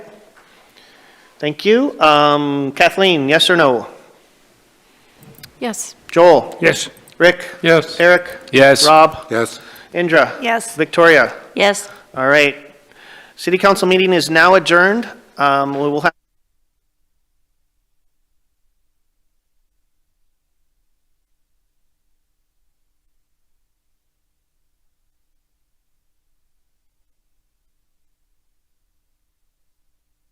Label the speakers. Speaker 1: Thank you. Um, Kathleen, yes or no?
Speaker 2: Yes.
Speaker 1: Joel?
Speaker 3: Yes.
Speaker 1: Rick?
Speaker 3: Yes.
Speaker 1: Eric?
Speaker 4: Yes.
Speaker 1: Rob?
Speaker 3: Yes.
Speaker 1: Indra?
Speaker 2: Yes.
Speaker 1: Victoria?
Speaker 2: Yes.
Speaker 1: All right. City council meeting is now adjourned. Um, We will have.